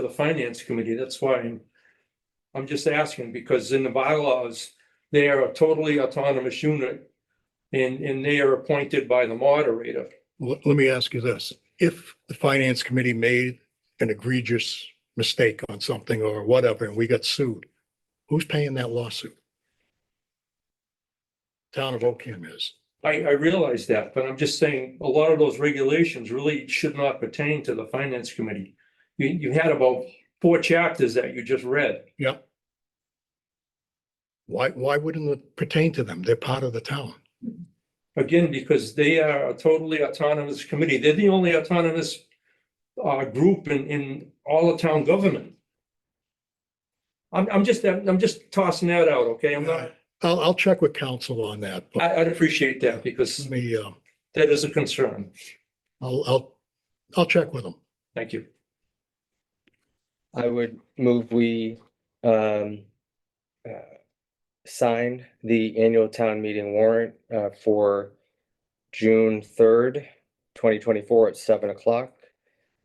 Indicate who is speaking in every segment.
Speaker 1: to the finance committee, that's why I'm. I'm just asking, because in the bylaws, they are a totally autonomous unit. And, and they are appointed by the moderator.
Speaker 2: Let, let me ask you this. If the finance committee made an egregious mistake on something or whatever, and we got sued, who's paying that lawsuit? Town of Ocam is.
Speaker 1: I, I realize that, but I'm just saying, a lot of those regulations really should not pertain to the finance committee. You, you had about four chapters that you just read.
Speaker 2: Yep. Why, why wouldn't it pertain to them? They're part of the town.
Speaker 1: Again, because they are a totally autonomous committee. They're the only autonomous uh, group in, in all of town government. I'm, I'm just, I'm just tossing that out, okay? I'm not,
Speaker 2: I'll, I'll check with council on that, but
Speaker 1: I, I'd appreciate that because
Speaker 2: let me, um,
Speaker 1: that is a concern.
Speaker 2: I'll, I'll, I'll check with them.
Speaker 1: Thank you.
Speaker 3: I would move we um uh, sign the annual town meeting warrant uh for June third, twenty twenty-four at seven o'clock.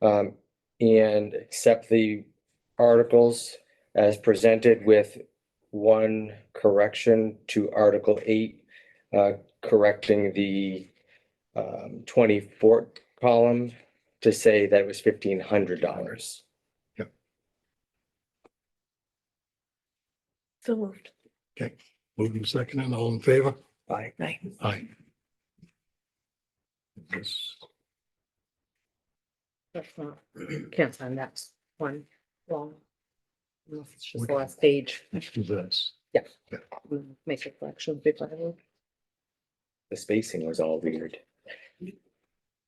Speaker 3: Um, and accept the articles as presented with one correction to Article eight, uh, correcting the um twenty-four column to say that it was fifteen hundred dollars.
Speaker 4: So moved.
Speaker 2: Moving second and all in favor?
Speaker 3: Bye.
Speaker 4: Right.
Speaker 2: Aye.
Speaker 4: That's not, can't sign that one long. Unless it's just the last page.
Speaker 2: Let's do this.
Speaker 4: We'll Make a collection. big level.
Speaker 3: The spacing was all weird.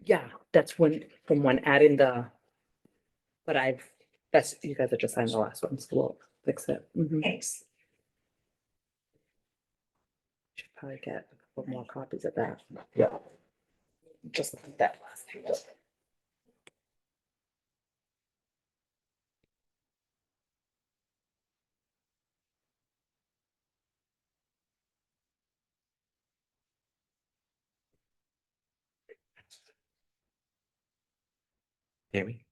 Speaker 4: Yeah, that's when, from when adding the. But I've, that's, you guys have just signed the last one, so we'll fix it. Mhm.
Speaker 5: Thanks.
Speaker 4: Should probably get a couple more copies of that.
Speaker 3: Yeah.
Speaker 4: Just like that last page.
Speaker 3: Amy?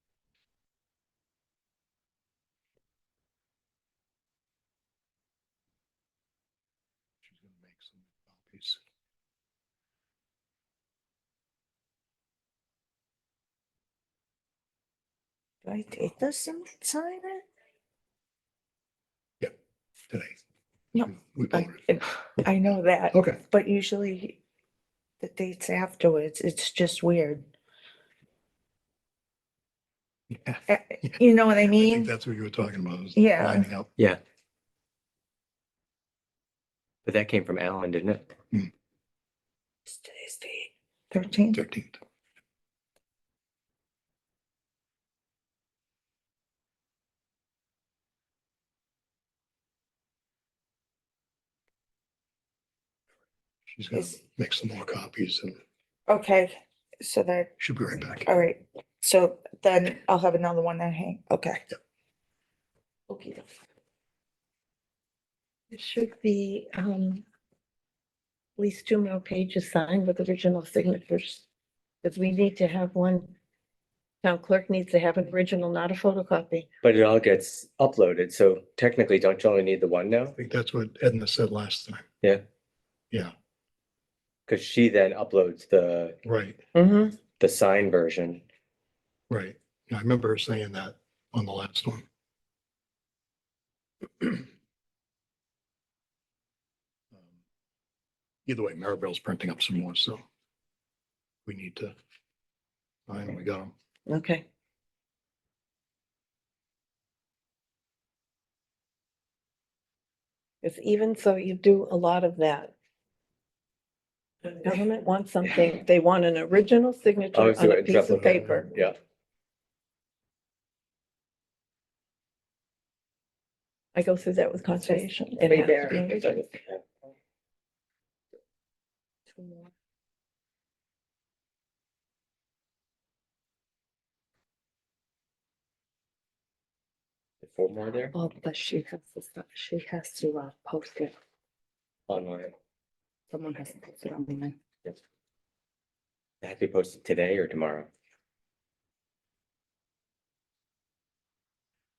Speaker 5: Do I take this and sign it?
Speaker 2: Today.
Speaker 5: No,
Speaker 2: We
Speaker 5: I,
Speaker 2: voted.
Speaker 5: I know that,
Speaker 2: Okay,
Speaker 5: but usually the dates afterwards, it's just weird.
Speaker 2: Yeah.
Speaker 5: Eh, You know what I
Speaker 2: I think
Speaker 5: mean?
Speaker 2: that's what you were talking about. is
Speaker 5: Yeah.
Speaker 2: lining up.
Speaker 3: Yeah. But that came from Alan, didn't it?
Speaker 5: It's Today's date, thirteenth,
Speaker 2: Thirteenth. She's gonna
Speaker 5: Is-
Speaker 2: make some more copies and
Speaker 5: okay, so that,
Speaker 2: she'll be right back.
Speaker 5: all right, so then I'll have another one that hang, okay.
Speaker 6: Okay. It should be, um, at least two more pages signed with original signatures. Because we need to have one, town clerk needs to have an original, not a photocopy.
Speaker 3: But it all gets uploaded, so technically, don't you only need the one now?
Speaker 2: I think that's what Edna said last time.
Speaker 3: Because she then uploads the,
Speaker 2: Right,
Speaker 5: Mm-hmm.
Speaker 3: the signed version.
Speaker 2: right. I remember her saying that on the last one. Um, Either way, Maribel's printing up some more, so we need to. I we got them.
Speaker 6: Okay. Because even so, you do a lot of that. When the Government wants something, they want an original signature
Speaker 3: Always do
Speaker 6: on
Speaker 3: it
Speaker 6: a
Speaker 3: in
Speaker 6: piece of
Speaker 3: triplicate.
Speaker 6: paper.
Speaker 3: Yeah,
Speaker 6: I go through that with conservation.
Speaker 4: way
Speaker 6: It has to
Speaker 4: better.
Speaker 6: be original.
Speaker 3: four more there
Speaker 6: Oh, but she has to, stop- she has to uh, post it.
Speaker 3: online.
Speaker 6: Someone has to post it on the.
Speaker 3: That had to be posted today or tomorrow.